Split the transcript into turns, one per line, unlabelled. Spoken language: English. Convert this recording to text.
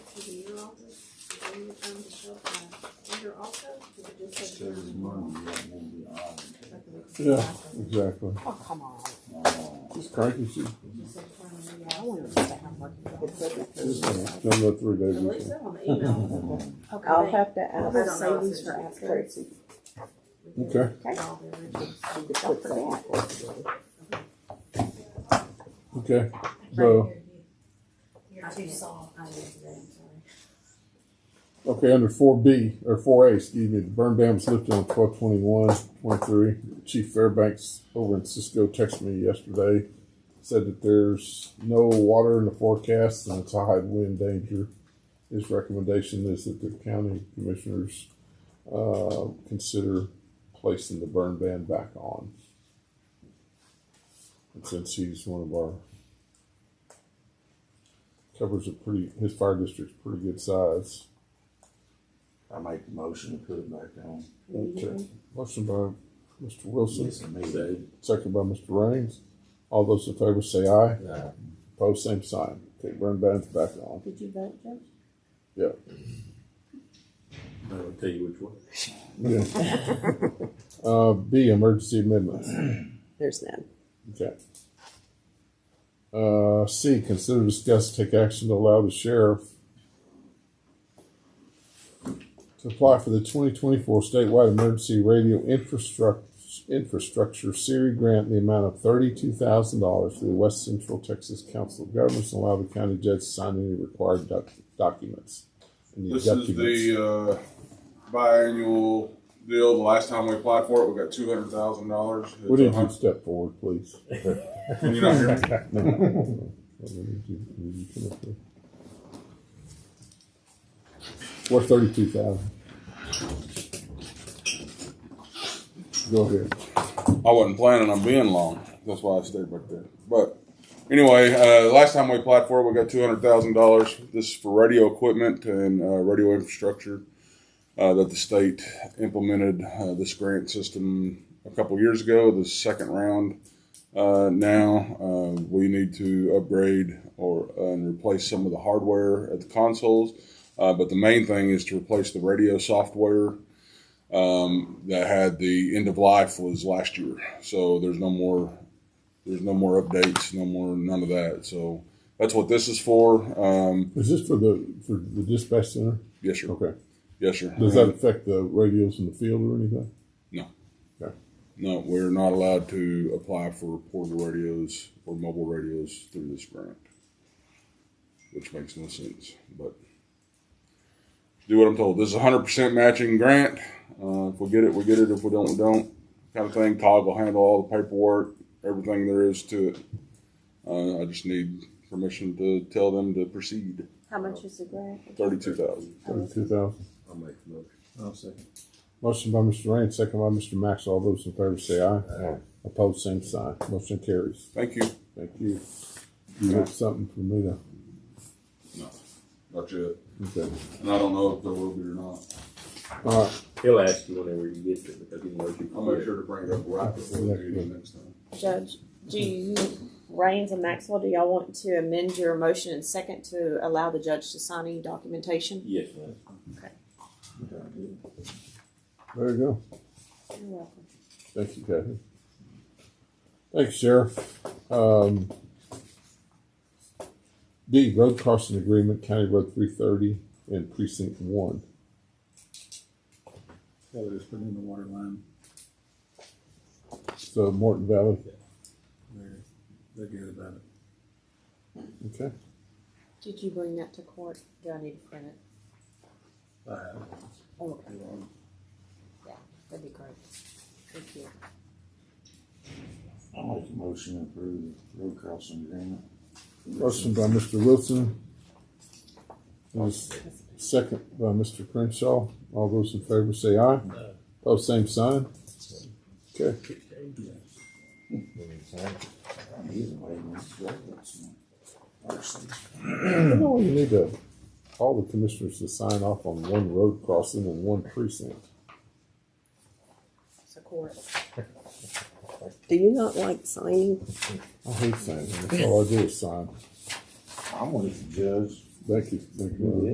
to the year office, and then you come to show up my year also, you could just
It's
say year.
every Monday, that will be audited.
Yeah, exactly.
Oh, come on.
Just cranky. She,
Just say, "Fine,
I
yeah."
don't want to stay home working.
just done that three days.
At least
ago.
that on the email.
Okay.
I'll have to
I don't know
ask
if
savings
it's
for
just-
Tracy.
All
Okay.
the originals.
She could put that in for
Okay. So
You're too soft. I did today, I'm sorry.
okay, under four B or four A, excuse me, the burn ban was lifted on 12-21-23. Chief Fairbanks over in Cisco texted me yesterday, said that there's no water in the forecast and it's a high wind danger. His recommendation is that the county commissioners uh, consider placing the burn ban back on. And since he's one of our covers a pretty his fire district's pretty good size.
I make the motion to put it back on.
Okay. Motion by Mr. Wilson,
Listen, me, Dave.
second by Mr. Raines. All those in favor say aye.
Yeah.
uh,
Opposed, same sign. Okay, burn ban's back on.
Did you vote, Judge?
Yeah.
I'll tell you which one.
Yeah. Uh, B, emergency amendments.
There's none.
Okay. Uh, C, consider discuss take action to allow the sheriff to apply for the twenty twenty-four statewide emergency radio infrastructure, infrastructure Siri grant in the amount of thirty-two thousand dollars to the West Central Texas Council of Governments and allow the county judge to sign any required doc- documents. And the
This is
documents-
the uh, biannual deal. The last time we applied for it, we got two hundred thousand dollars.
Would you step forward, please?
You're not hearing me.
Worth thirty-two thousand. Go ahead.
I wasn't planning on being long. That's why I stayed back there. But anyway, uh, last time we applied for it, we got two hundred thousand dollars. This is for radio equipment and uh, radio infrastructure uh, that the state implemented uh, this grant system a couple years ago. The second round. Uh, now uh, we need to upgrade or uh, and replace some of the hardware at the consoles. Uh, but the main thing is to replace the radio software um, that had the end of life was last year. So there's no more, there's no more updates, no more, none of that. So that's what this is for. Um,
Is this for the, for the dispatch center?
yes, sir.
Okay.
Yes, sir.
Does that affect the radios in the field or anything?
No.
Okay.
No, we're not allowed to apply for portable radios or mobile radios through this grant, which makes no sense. But do what I'm told. This is a 100% matching grant. Uh, if we get it, we get it. If we don't, we don't. Kind of thing. Todd will handle all the paperwork, everything there is to it. Uh, I just need permission to tell them to proceed.
How much is the grant?
32000
Thirty-two thousand.
I'll make the motion. I'll second.
Motion by Mr. Raines, second by Mr. Max. All those in favor say aye. Aye. Opposed, same sign. Motion carries.
Thank you.
Thank you. You have something for me to,
No, not yet.
okay.
And I don't know if there will be or not.
All right,
He'll ask you whenever you get to it, because he knows you.
I'll make sure to bring it up right before the meeting next time.
Judge, do you, Rains and Maxwell, do y'all want to amend your motion and second to allow the judge to sign any documentation?
Yes, ma'am.
there you go.
You're welcome.
Thank you, Kathy. Thanks, Sheriff. Um, D, road crossing agreement, County Road three thirty and precinct one.
That was putting in the water line.
So Morton Valley,
They're, they're good about it.
okay.
Did you bring that to court? Do I need to print it? Oh, okay. Yeah, that'd be great. Thank you.
I make the motion to approve the road crossing agreement.
Motion by Mr. Wilson. And s- Second by Mr. Crenshaw. All those in favor say aye. Pose same sign. Okay.
Either way, it's great, that's my- Actually,
You know, you need to, all the commissioners to sign off on one road crossing and one precinct.
So court.
Do you not like signing?
I hate signing. That's all I do is sign.
I'm with the judge.
Thank you. Thank you.